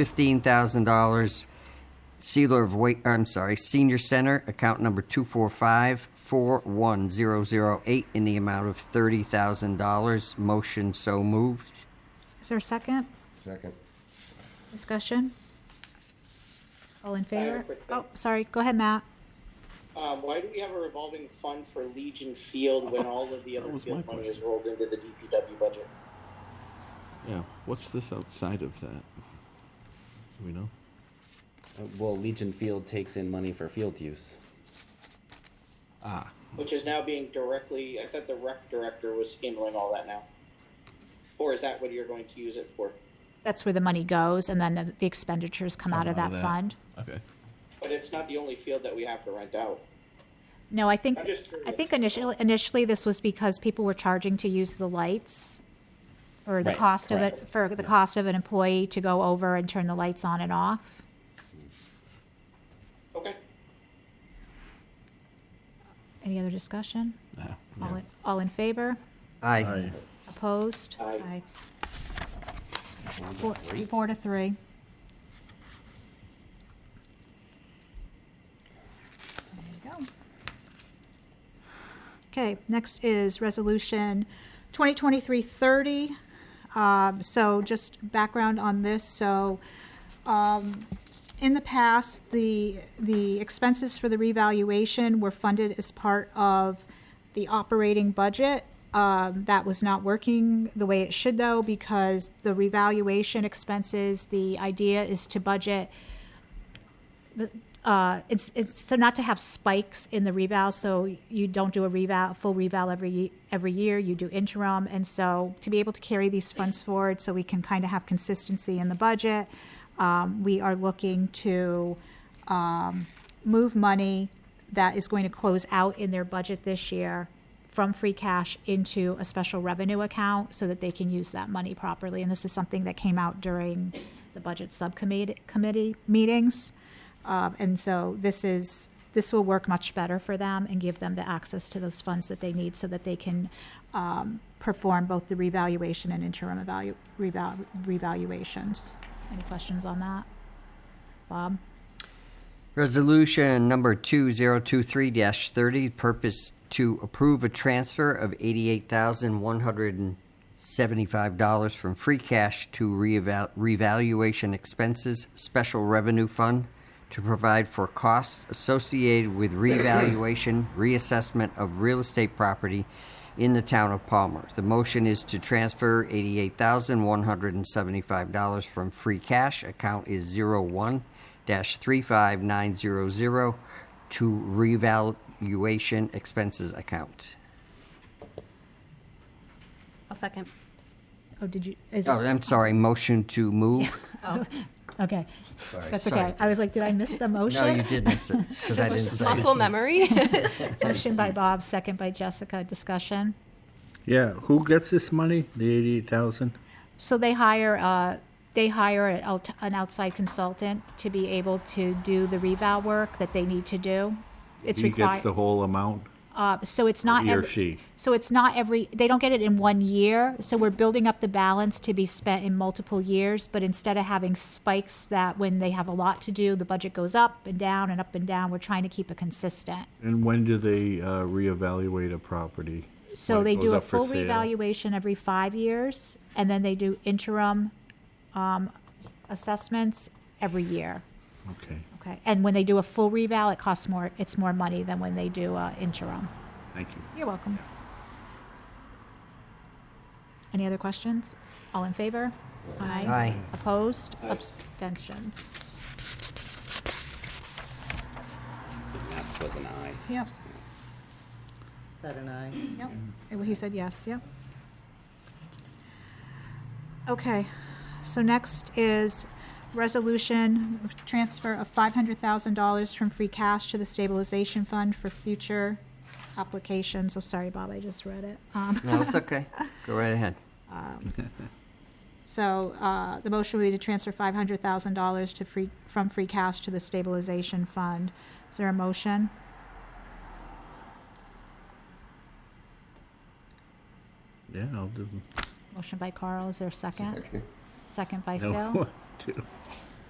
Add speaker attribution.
Speaker 1: fifteen thousand dollars. Sealer of Wait, I'm sorry, Senior Center, account number two four five four one zero zero eight, in the amount of thirty thousand dollars. Motion so moved.
Speaker 2: Is there a second?
Speaker 3: Second.
Speaker 2: Discussion? All in
Speaker 4: have a
Speaker 2: favor?
Speaker 4: quick thing.
Speaker 2: Oh, sorry, go ahead, Matt.
Speaker 4: Um, why do we have a revolving fund for Legion Field when all of the other
Speaker 5: was my
Speaker 4: field money is
Speaker 5: question.
Speaker 4: rolled into the DPW budget?
Speaker 5: Yeah. What's this outside of that? Do we know?
Speaker 6: Well, Legion Field takes in money for field use.
Speaker 5: Ah,
Speaker 4: Which is now being directly, I thought the rec director was handling all that now. Or is that what you're going to use it for?
Speaker 2: That's where the money goes, and then the- the expenditures come out of that fund.
Speaker 5: okay.
Speaker 4: But it's not the only field that we have to rent out.
Speaker 2: No, I think,
Speaker 4: I'm just
Speaker 2: I
Speaker 4: curious.
Speaker 2: think initially, initially this was because people were charging to use the lights or the
Speaker 6: Right,
Speaker 2: cost of it,
Speaker 6: correct.
Speaker 2: for the cost of an employee to go over and turn the lights on and off.
Speaker 4: Okay,
Speaker 2: Any other discussion?
Speaker 5: Ah,
Speaker 2: All
Speaker 5: yeah.
Speaker 2: in, all in favor?
Speaker 1: Aye.
Speaker 2: Opposed?
Speaker 4: I,
Speaker 2: Four, four to three. There you go. Okay, next is Resolution 2023-30. Um, So just background on this, so um, in the past, the, the expenses for the revaluation were funded as part of the operating budget. Um, That was not working the way it should though, because the revaluation expenses, the idea is to budget the, uh, it's, it's, so not to have spikes in the reval, so you don't do a reval, full reval every, ye- every year, you do interim, and so to be able to carry these funds forward, so we can kind of have consistency in the budget, um, we are looking to, um, move money that is going to close out in their budget this year from free cash into a special revenue account, so that they can use that money properly, and this is something that came out during the budget subcommittee, committee meetings. Um, and so this is, this will work much better for them and give them the access to those funds that they need so that they can, um, perform both the revaluation and interim evalu, reval, revaluations. Any questions on that? Bob?
Speaker 1: Resolution number 2023-30, purpose to approve a transfer of $88,175 from free cash to reeval- revaluation expenses, special revenue fund, to provide for costs associated with revaluation, reassessment of real estate property in the town of Palmer. The motion is to transfer $88,175 from free cash, account is 01 dash three five nine zero zero to revaluation expenses account.
Speaker 7: I'll second.
Speaker 2: Oh, did you, is
Speaker 1: Oh,
Speaker 2: it,
Speaker 1: I'm sorry, motion to move.
Speaker 2: okay.
Speaker 1: Sorry,
Speaker 2: That's
Speaker 1: sorry.
Speaker 2: okay. I was like, did I miss the motion?
Speaker 1: No, you did miss it, because I didn't say it.
Speaker 7: Muscle memory.
Speaker 2: Motion by Bob, second by Jessica. Discussion?
Speaker 8: Yeah, who gets this money? The eighty-eight thousand?
Speaker 2: So they hire, uh, they hire an out- an outside consultant to be able to do the revow work that they need to do. It's
Speaker 8: He gets the
Speaker 2: required,
Speaker 8: whole amount,
Speaker 2: uh, so it's not.
Speaker 8: he or
Speaker 2: every-
Speaker 8: she?
Speaker 2: So it's not every, they don't get it in one year, so we're building up the balance to be spent in multiple years, but instead of having spikes that when they have a lot to do, the budget goes up and down and up and down, we're trying to keep it consistent.
Speaker 8: And when do they, uh, reevaluate a property?
Speaker 2: So
Speaker 8: When it
Speaker 2: they
Speaker 8: goes
Speaker 2: do a
Speaker 8: up for
Speaker 2: full
Speaker 8: sale?
Speaker 2: revaluation every five years, and then they do interim, um, assessments every year.
Speaker 8: Okay,
Speaker 2: Okay, and when they do a full reval, it costs more, it's more money than when they do uh, interim.
Speaker 8: thank you.
Speaker 2: You're welcome. Any other questions? All in favor?
Speaker 1: Aye.
Speaker 2: Opposed? Abstentions?
Speaker 6: That's was an eye.
Speaker 2: Yep,
Speaker 9: Said an aye.
Speaker 2: yep. Well, He said yes, yep. Okay, so next is resolution, of transfer of five hundred thousand dollars from free cash to the stabilization fund for future applications. Oh, sorry, Bob, I just read it. Um,
Speaker 1: No, it's okay. Go right ahead.
Speaker 2: So uh, the motion would be to transfer $500,000 to free, from free cash to the stabilization fund. Is there a motion?
Speaker 8: Yeah, I'll do.
Speaker 2: Motion by Carl, is there a second? Second by
Speaker 8: No,
Speaker 2: Phil?
Speaker 8: two.